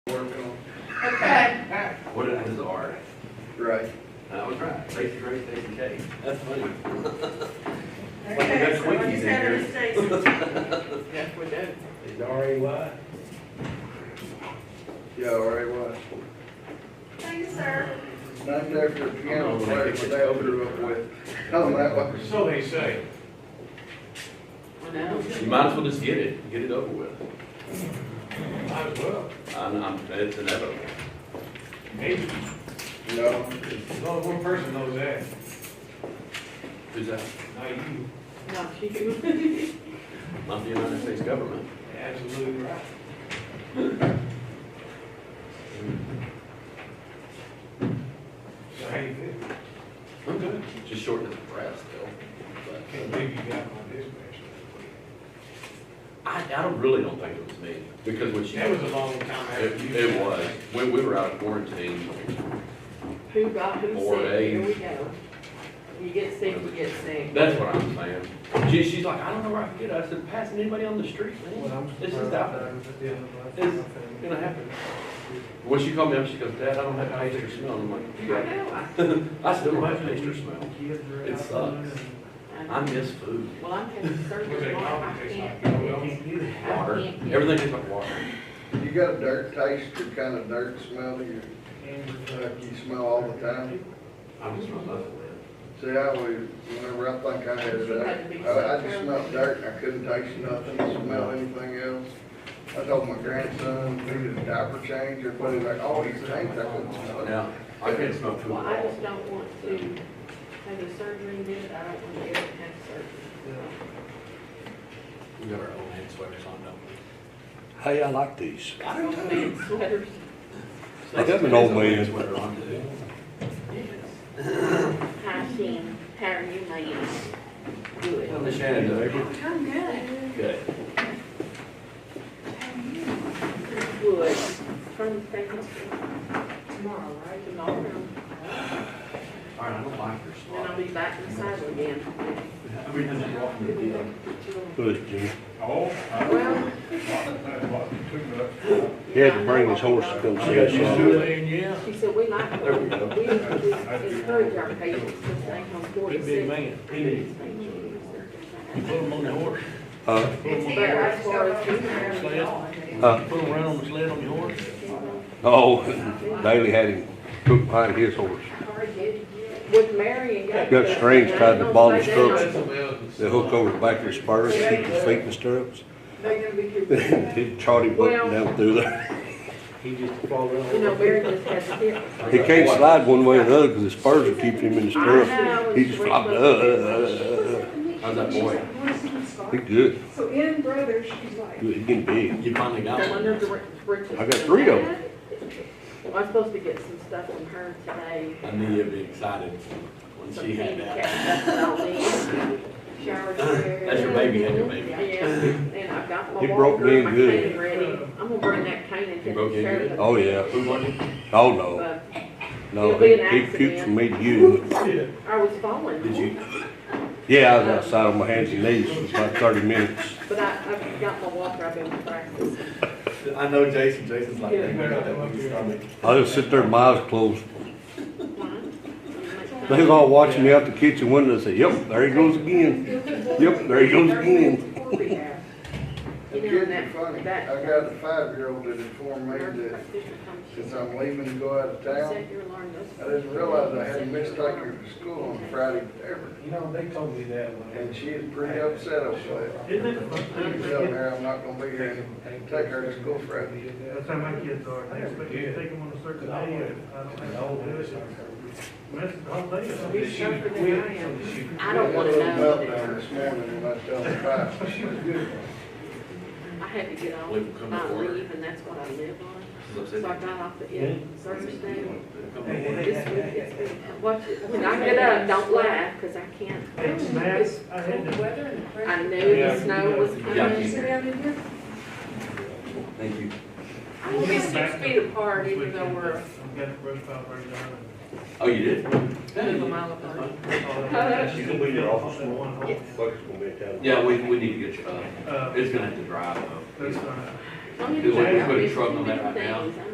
Okay. What did I do, R? Right. I was right, Stacy Gray, Stacy K. That's funny. Like we got Okay, so I Twinkies just in had a here. mistake. Yes, we did. Is R A Y? Yeah, right, well, Thank you, sir. named after a piano player that I grew up with. Tell Oh, them that was. So they say. I know. You might as well just get it, get it over with. Might as well. I'm, I'm, it's inevitable. Maybe. No, Well, one person knows that. Who's that? Not you. No, you. Not the United States government. Absolutely right. So how you feel? I'm good. Just short and brass still. Can't believe you got on this dispatch. But I, I don't, really don't think it was me, because what she, That it, was a long time after you. it was. When we were out of quarantine, Who got who Four sick? days. Here we go. You get sick, you get sick. that's what I'm saying. She, she's like, I don't know where I can get it. I said, passing anybody on the street, man. It's just out there. It's gonna happen. When she called me up, she goes, Dad, I don't have an extra smell. And I'm like, I "You right." know. I still don't have an extra smell. It sucks. I- I miss food. Well, I'm having Was surgery it tomorrow. coffee I tastes can't. like oil? Water. Everything tastes like water. you got a dirt taste, or kind of dirt smell, to you, like you smell all the time. I just smell nothing, man. See, I always, whenever I think I had that, I, I just smelled dirt, and I couldn't taste nothing, smell anything else. I told my grandson, we did a diaper change, or put it like, oh, you changed, I couldn't smell it. Now, I can't smell food Well, I at all. just don't want to have the surgery and then I don't want to ever have surgery. We got our own hand sweaters on, don't Hey, I like these. we? I don't I mean, sweaters. I got an old man. Sweater on too. Hi, Sam. How are you, ma'am? Tell Miss Shannon, though. I'm good. Okay. Good. From Franklin. Tomorrow, right? Tomorrow. All right, I don't like your Then I'll spot. be back in the saddle again. I mean, I'm just walking to the deal. Good, Jimmy. Oh, I don't know. Well, He had to bring his horse to go You see got us. used to it, and yeah. she said, we like, There we go. we encourage our patients to stay home forty Big, six. big man. You put him on the horse, Uh, But as far as being there, we are. uh, put him around on the sled on your horse. oh, Daley had him hooked behind his horse. With Mary and Gabe. Got strings tied to the bottom of the They're stirrups. They hook over the back of his spurs, to keep his feet in the stirrups. gonna be too big. He trod him up and down through there. He just fall You know, Mary just has a hip. He can't slide one way or the other because his spurs are keeping him in the stirrups. He just flopped, uh, uh, How's that boy? uh, uh. He good, So in brother, she's like, good, he getting big. You finally got The one one. that's ri- riches. I got three of them. I'm supposed to get some stuff from her today. I knew you'd be excited when some she had that. handicap stuff that I'll need. Shower chair. That's your baby, had your baby. Yeah, and I've got my He broke walker and me my good. cane ready. I'm gonna bring that cane and He take broke you care of good? it. Oh, yeah. Who won it? Oh, no, But no, he he puked from me to you. I was falling. Did you? Yeah, I was outside on my hands and knees for about thirty minutes. But I, I've got my walker, I've been practicing. I know Jason, Jason's like, Yeah. "Hey, man, that monkey stomach." I just sit there, with my eyes closed. They Why? was all watching me out the kitchen window, and say, yep, there he goes again. Yep, there he goes again. The kids are funny. I got a five-year-old that informed me that since I'm leaving to go out of town, I didn't realize I hadn't missed like her to school on Friday ever. You know, they told me that one. And she is pretty upset over that. Isn't it? She's telling her I'm not gonna be here and take her to school Friday. That's how my kids are, they expect me to take them on a certain day, and I don't have to do it. Mess the whole day up. You're sharper than I am. I don't wanna Little meltdown know. This morning when I told her five, she was good. I had to get off We've come my before. leave, and that's what I live on. She's So I upset. got off the, yeah, Thursday. Come Hey, on. hey, This week, it's been, watch, it. when I get up, don't laugh, cause I can't. Hey, Max, I had to, I knew the snow was Yeah. coming. Thank you. I was just six feet apart, even though we're I've got to brush pile right now. Oh, you did? a mile apart. You can leave your office one. Yes. Yeah, we, we need to get you, uh, Uh, it's gonna have to drive though. that's fine. I'm gonna Do check we Yeah. out put a fifteen truck on that right now? things.